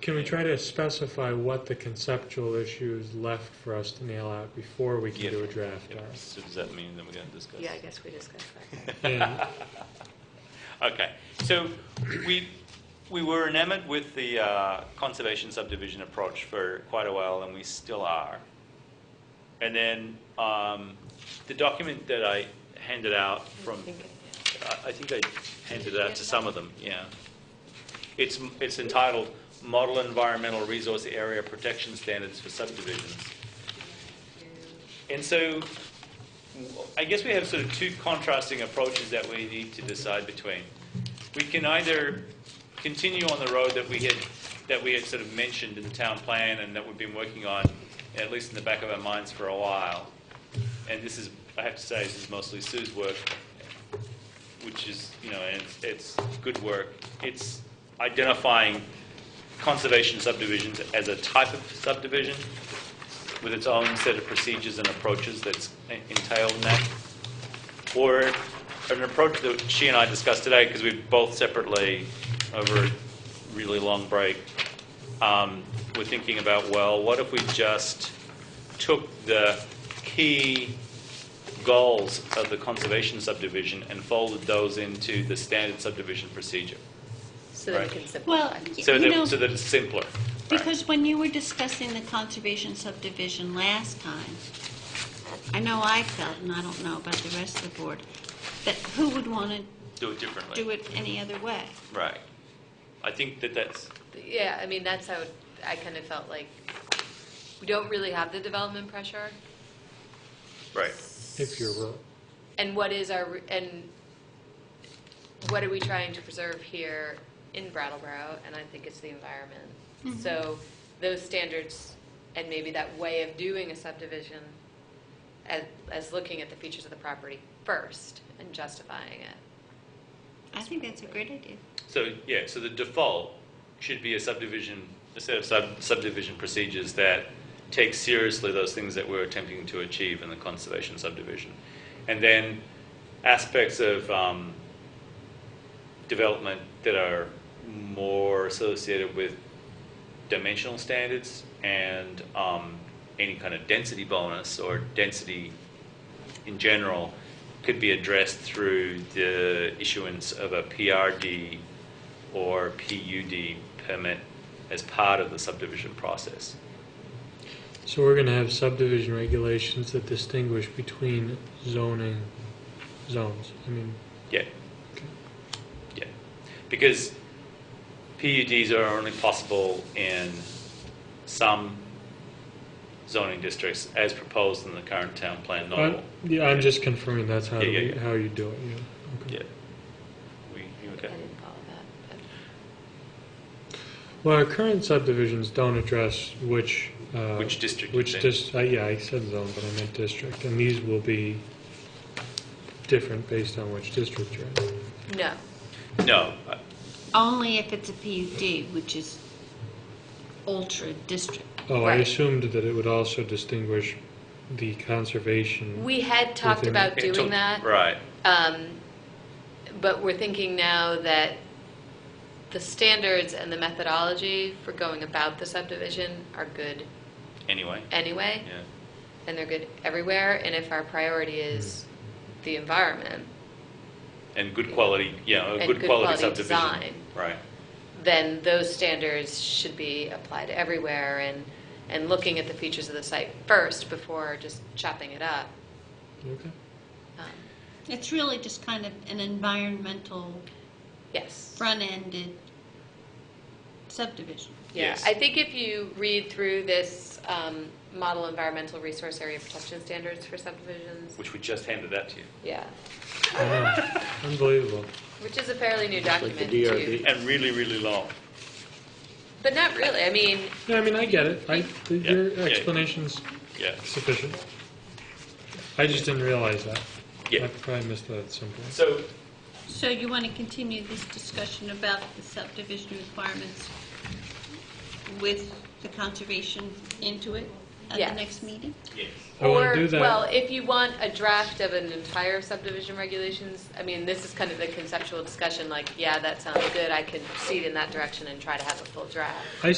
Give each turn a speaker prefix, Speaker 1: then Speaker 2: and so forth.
Speaker 1: Can we try to specify what the conceptual issue is left for us to nail out before we can do a draft
Speaker 2: Yeah,
Speaker 1: RFP?
Speaker 2: So does that mean then we got to discuss?
Speaker 3: Yeah, I guess we discussed that.
Speaker 1: And
Speaker 2: Okay, so we, we were enamored with the uh, conservation subdivision approach for quite a while, and we still are. And then um, the document that I handed out from, I I think I handed it out to some of them, yeah. It's, it's entitled Model Environmental Resource Area Protection Standards for Subdivisions. And so I guess we have sort of two contrasting approaches that we need to decide between. We can either continue on the road that we had, that we had sort of mentioned in the town plan and that we've been working on, at least in the back of our minds for a while. And this is, I have to say, this is mostly Sue's work, which is, you know, and it's, it's good work. It's identifying conservation subdivisions as a type of subdivision with its own set of procedures and approaches that's entailed in that? Or an approach that she and I discussed today, because we both separately, over a really long break, um, were thinking about, well, what if we just took the key goals of the conservation subdivision and folded those into the standard subdivision procedure?
Speaker 3: So that
Speaker 2: Right.
Speaker 3: we can simplify.
Speaker 4: Well, y-
Speaker 2: So
Speaker 4: you know,
Speaker 2: that, so that it's simpler. right?
Speaker 4: because when you were discussing the conservation subdivision last time, I know I felt, and I don't know about the rest of the board, that who would want to
Speaker 2: Do it differently.
Speaker 4: do it any other way?
Speaker 2: Right. I think that that's,
Speaker 3: Yeah, I mean, that's how I kind of felt like, we don't really have the development pressure.
Speaker 2: right.
Speaker 1: if you're wrong,
Speaker 3: And what is our, and what are we trying to preserve here in Brattleboro? And I think it's the environment. So those standards and maybe that way of doing a subdivision as, as looking at the features of the property first and justifying it.
Speaker 4: I think that's a great idea.
Speaker 2: So, yeah, so the default should be a subdivision, a set of sub- subdivision procedures that take seriously those things that we're attempting to achieve in the conservation subdivision. And then aspects of um, development that are more associated with dimensional standards and um, any kind of density bonus or density in general could be addressed through the issuance of a PRD or PUD permit as part of the subdivision process.
Speaker 1: so we're going to have subdivision regulations that distinguish between zoning zones. I mean,
Speaker 2: Yeah. Yeah. Because PUDs are only possible in some zoning districts as proposed in the current town plan, not all.
Speaker 1: I'm- yeah, I'm just confirming that's how,
Speaker 2: Yeah, yeah,
Speaker 1: we-
Speaker 2: yeah.
Speaker 1: how you do it, yeah.
Speaker 2: Yeah.
Speaker 1: Okay.
Speaker 2: We, you
Speaker 3: I
Speaker 2: okay?
Speaker 3: didn't follow that.
Speaker 1: Well, our current subdivisions don't address which. uh,
Speaker 2: Which district you
Speaker 1: Which
Speaker 2: think?
Speaker 1: dis, uh, yeah, I said zone, but I meant district, and these will be different based on which district you're in.
Speaker 3: but- No.
Speaker 2: No, I-
Speaker 4: Only if it's a PUD, which is ultra district.
Speaker 1: Oh, I
Speaker 3: Right.
Speaker 1: assumed that it would also distinguish the conservation.
Speaker 3: We had talked
Speaker 1: Within-
Speaker 3: about
Speaker 2: it took-
Speaker 3: doing that.
Speaker 2: Right.
Speaker 3: Um, But we're thinking now that the standards and the methodology for going about the subdivision are good
Speaker 2: Anyway.
Speaker 3: anyway,
Speaker 2: Yeah.
Speaker 3: and they're good everywhere, and if our priority is
Speaker 2: Mm-hmm.
Speaker 3: the environment,
Speaker 2: And good quality, yeah, a
Speaker 3: And
Speaker 2: good
Speaker 3: good
Speaker 2: quality
Speaker 3: quality
Speaker 2: subdivision.
Speaker 3: design.
Speaker 2: Right.
Speaker 3: then those standards should be applied everywhere, and, and looking at the features of the site first before just chopping it up.
Speaker 1: Okay.
Speaker 3: Um,
Speaker 4: It's really just kind of an environmental,
Speaker 3: Yes.
Speaker 4: front-ended subdivision.
Speaker 3: Yeah,
Speaker 2: Yes.
Speaker 3: I think if you read through this um, model environmental resource area protection standards for subdivisions,
Speaker 2: Which we just handed that to you.
Speaker 3: yeah,
Speaker 1: Wow. Ah, Unbelievable.
Speaker 3: which is a fairly new document too.
Speaker 2: And really, really long.
Speaker 3: But not really, I mean,
Speaker 1: Yeah, I mean, I get it. I, th-
Speaker 2: Yeah,
Speaker 1: your
Speaker 2: yeah.
Speaker 1: explanation's
Speaker 2: Yeah.
Speaker 1: sufficient. I just didn't realize that.
Speaker 2: Yeah.
Speaker 1: I probably missed that at some point.
Speaker 2: So,
Speaker 4: So you want to continue this discussion about the subdivision requirements with the conservation into it at the
Speaker 3: Yes.
Speaker 4: next meeting?
Speaker 2: yes.
Speaker 1: I wanna
Speaker 3: or,
Speaker 1: do that.
Speaker 3: well, if you want a draft of an entire subdivision regulations, I mean, this is kind of the conceptual discussion, like, yeah, that sounds good, I could proceed in that direction and try to have a full draft.